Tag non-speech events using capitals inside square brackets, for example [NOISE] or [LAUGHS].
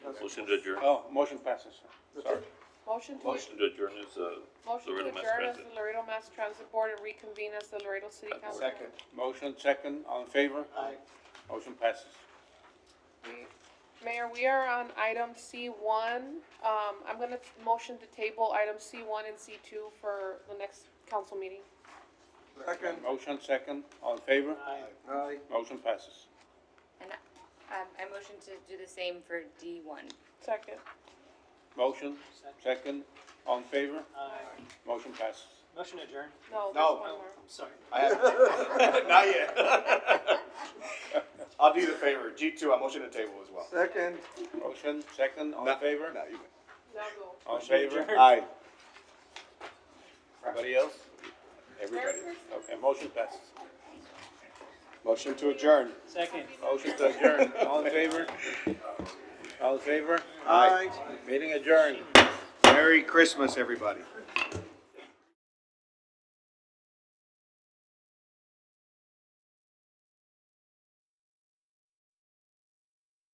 Motion to adjourn. Oh, motion passes. Sorry. Motion to, Motion to adjourn is, uh, motion to Laredo Mass adjourn as Transit. the Laredo Mass Transit Board and reconvene as the Laredo City Council. Second. Motion second, all in favor? Aye. Motion passes. We- Mayor, we are on item C one. Um, I'm gonna t- motion to table item C one and C two for the next council meeting. Second. Motion second, all in favor? Aye. Aye. Motion passes. And I, um, I motion to do the same for D one. Second. Motion second, all in favor? Aye. Motion passes. Motion adjourned. No, there's No. one more. I'm sorry. I have [LAUGHS] not yet. [LAUGHS] I'll do the favor. G two, I motion to table as well. Second. Motion second, all in Not- favor? No, you win. Now go. All in Motion favor? adjourned. Aye. Everybody else? Everybody. Okay, motion passes. Motion to adjourn. Second. Motion to adjourn, all in favor? All in favor? Aye. Meeting adjourned. Merry Christmas, everybody.